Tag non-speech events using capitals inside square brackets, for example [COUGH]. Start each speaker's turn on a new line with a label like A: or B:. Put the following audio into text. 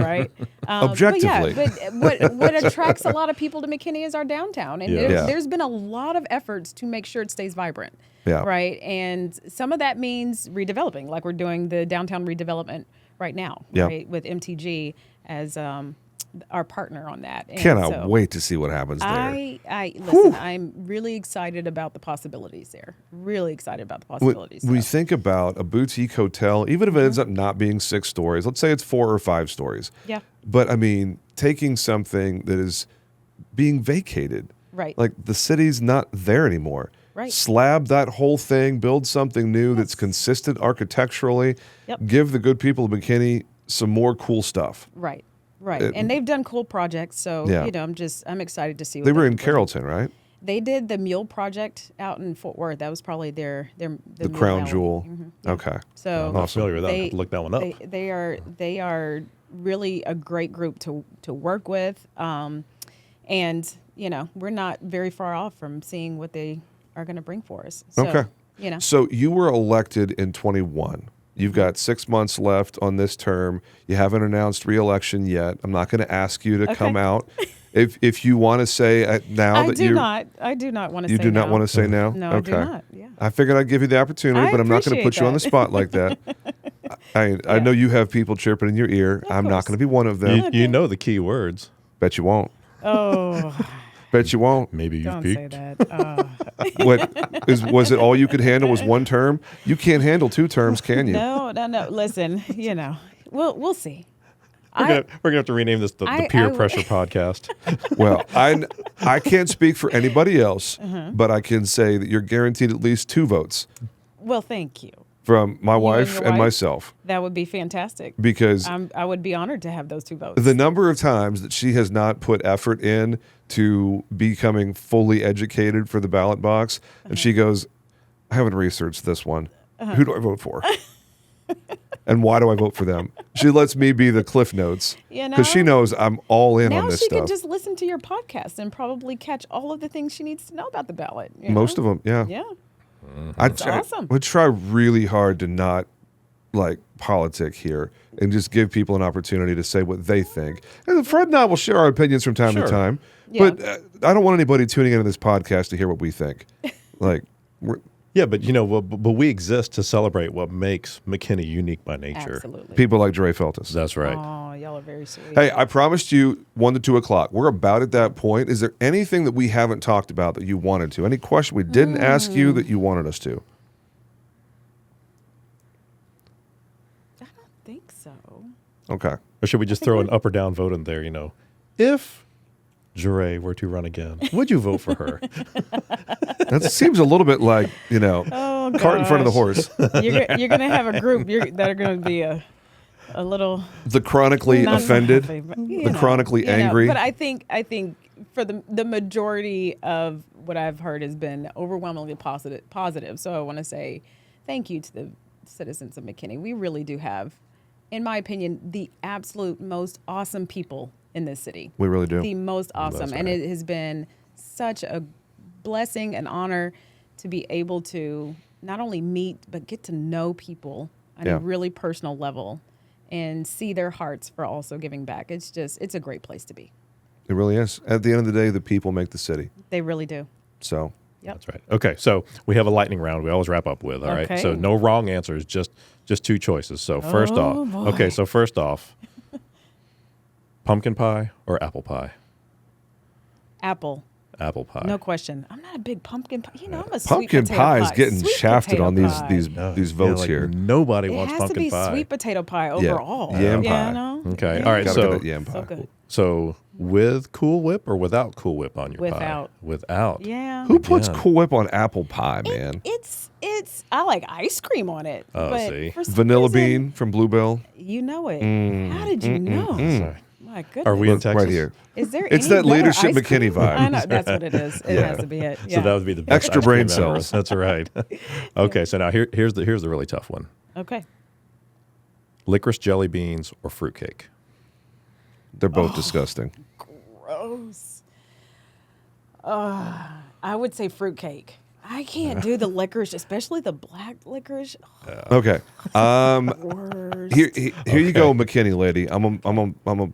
A: right.
B: [LAUGHS]
A: Um,
B: Objectively.
A: But yeah, but what,
B: [LAUGHS]
A: what attracts a lot of people to McKinney is our downtown. And
C: Yeah.
A: there's-
B: Yeah.
A: there's been a lot of efforts to make sure it stays vibrant.
B: Yeah.
A: Right. And some of that means redeveloping, like we're doing the downtown redevelopment right now,
B: Yeah.
A: right, with MTG as um, our partner on that. And
B: Cannot
A: so
B: wait to see what happens there.
A: I, I listen. I'm really excited about the possibilities there. Really excited about the
B: When
A: possibilities.
B: we
A: so.
B: think about a boutique hotel, even if it ends up not being six stories, let's say it's four or five stories.
A: Mm-hmm. Yeah.
B: But I mean, taking something that is being vacated.
A: Right.
B: Like the city's not there anymore.
A: Right.
B: Slab that whole thing, build something new that's consistent architecturally.
A: Yep.
B: Give the good people of McKinney some more cool stuff.
A: Right, right. and they've done cool projects, so
B: uh, Yeah.
A: you know, I'm just I'm excited to see. What
B: They were in
A: Carroll.
B: Carrollton, right?
A: They did the Mule Project out in Fort Worth. That was probably their their
B: The,
A: Mule
B: crown
A: Alley.
B: jewel. Okay.
A: So
B: I'm not
C: familiar with that. I
A: they-
C: have to look that one up.
A: They, they are they are really a great group to to work with, um, and you know we're not very far off from seeing what they are going to bring for us. So,
B: Okay.
A: You know.
B: So you were elected in 21. You've
A: Mm-hmm.
B: got six months left on this term. You haven't announced reelection yet. I'm not going to ask you to
A: [LAUGHS]
B: come out. If if you want to say uh, now
A: I
B: that
A: do
B: you
A: not. I do not want to.
B: you
A: say
B: do not
A: no.
B: want to say now.
A: No, I do
B: okay.
A: not, yeah.
B: I figured I'd give you the opportunity,
A: I
B: but I'm not going to
A: appreciate
B: put you on the
A: that.
B: spot
A: [LAUGHS]
B: like that. I I know you have people chirping in your ear. I'm not
A: course.
B: going to be one of them.
C: You, you know the key words.
B: Bet you won't. [LAUGHS]
A: Oh,
B: Bet you won't.
C: Maybe you've
A: don't say
C: peaked.
A: that.
B: [LAUGHS]
A: Uh,
B: what is was it all you could handle was one term? You can't handle two terms, can you?
A: no, no, no. Listen, you know, we'll we'll see.
C: We're
A: I-
C: gonna, we're gonna have to rename this the,
A: I-
C: the peer
A: I-
C: pressure podcast.
A: [LAUGHS]
B: Well, I, I can't speak for anybody else,
A: Mm-hmm.
B: but I can say that you're guaranteed at least two votes
A: Well, thank you.
B: from my wife
A: your wife?
B: and
A: Um,
B: myself
A: That would be fantastic.
B: because
A: I'm, I would be honored to have those two votes.
B: the number of times that she has not put effort in to becoming fully educated for the ballot box, and
A: Mm-hmm.
B: she goes, I haven't researched this one.
A: Uh-huh.
B: Who do I vote for? [LAUGHS] and why do I vote for them? She lets me be the cliff notes
A: You
B: because she
A: know?
B: knows I'm all in
A: now
B: on
A: she
B: this stuff.
A: could just listen to your podcast and probably catch all of the things she needs to know about the ballot. you
B: Most
A: know?
B: of them,
A: Yeah.
B: I try,
A: awesome.
B: would try really hard to not like politic here and just give people an opportunity to say what they think. And Fred and I will share our opinions from time
C: Sure.
B: to time,
A: Yeah.
B: but uh, I don't want anybody tuning into this podcast to hear what
A: [LAUGHS]
B: we think. Like, we're,
C: yeah, but you know, well, b- but we exist to celebrate what makes McKinney unique by nature.
A: Absolutely.
B: people like Dre Feltus.
C: That's right.
A: Oh, y'all are very sweet.
B: Hey, I promised you one to two o'clock. We're about at that point. Is there anything that we haven't talked about that you wanted to? Any question we didn't ask
A: Mm.
B: you that you wanted us to?
A: think so.
B: Okay.
C: Or should we just throw an up or down vote in there? You know, if Jure were to run again, would you vote
A: [LAUGHS]
C: for her?
B: That seems a little bit like, you know,
A: Oh,
B: cart in front of the
A: gosh.
B: horse.
A: You're, go- you're going to have a
B: [LAUGHS]
A: group you're, that are going to be a, a little
B: The chronically
A: not
B: offended.
A: happy, but, you
B: the chronically
A: Mm-hmm. you know,
B: angry.
A: but I think I think for the the majority of what I've heard has been overwhelmingly positive. Positive. So I want to say thank you to the citizens of McKinney. We really do have, in my opinion, the absolute most awesome people in this city.
B: we really do.
A: The most awesome, and it has been such a blessing and honor to be able to not only meet but get to know people on
B: Yeah.
A: a really personal level and see their hearts for also giving back. It's just it's a great place to be.
B: It really is. At the end of the day, the people make the city.
A: They really do.
B: So
A: Yep.
C: That's right. Okay, so we have a lightning round. We always wrap up with. all right.
A: Okay.
C: So no wrong answers, just just two choices. So first
A: Oh,
C: off,
A: boy.
C: okay. So first off, pumpkin pie or apple pie?
A: Apple.
C: Apple pie.
A: No question. I'm not a big pumpkin pie. You know, I'm a sweet
B: pumpkin
A: potato
B: pie is getting
A: Sweet
B: shafted
A: potato
B: on these
A: pie.
B: these
C: No.
B: these
C: Yeah,
B: votes
C: like
B: here.
C: Nobody
A: It
C: wants
A: has to
C: pumpkin
A: be
C: pie.
A: sweet potato pie overall.
B: Yam
A: yeah,
B: pie.
A: No?
C: Okay. All right.
B: Gotta
C: So
B: get that yam pie.
A: So good.
C: so with Cool Whip or without Cool Whip on your
A: Without.
C: pie? Without.
A: Yeah.
B: Who puts
C: Yeah.
B: Cool Whip on apple pie, man?
A: It's it's I like ice cream on it.
C: Oh,
A: but
C: see.
A: for some
B: Vanilla
A: reason,
B: bean from Bluebell.
A: You know it. How did you know?
C: Sorry.
A: My goodness.
C: Are we in
B: Look,
C: Texas?
B: right here.
A: Is there?
B: It's
A: any
B: that
A: better
B: leadership
A: ice
B: McKinney
A: cream?
B: vibe.
A: I know that's what it is. It
B: Yeah.
A: has to be it. Yeah.
C: So that would be the best
B: Extra
C: ice cream
B: brain
C: ever.
B: cells.
A: [LAUGHS]
C: That's right. okay, so now here, here's the here's the really tough one:
A: okay.
C: licorice jelly beans or fruitcake.
B: They're
A: Oh.
B: both disgusting.
A: Gross. Uh, I would say fruitcake. I can't do the licorice, especially the black licorice.
B: Okay. Um
A: Worse.
B: [LAUGHS] here he- here you go, McKinney lady. I'm a, I'm a, I'm a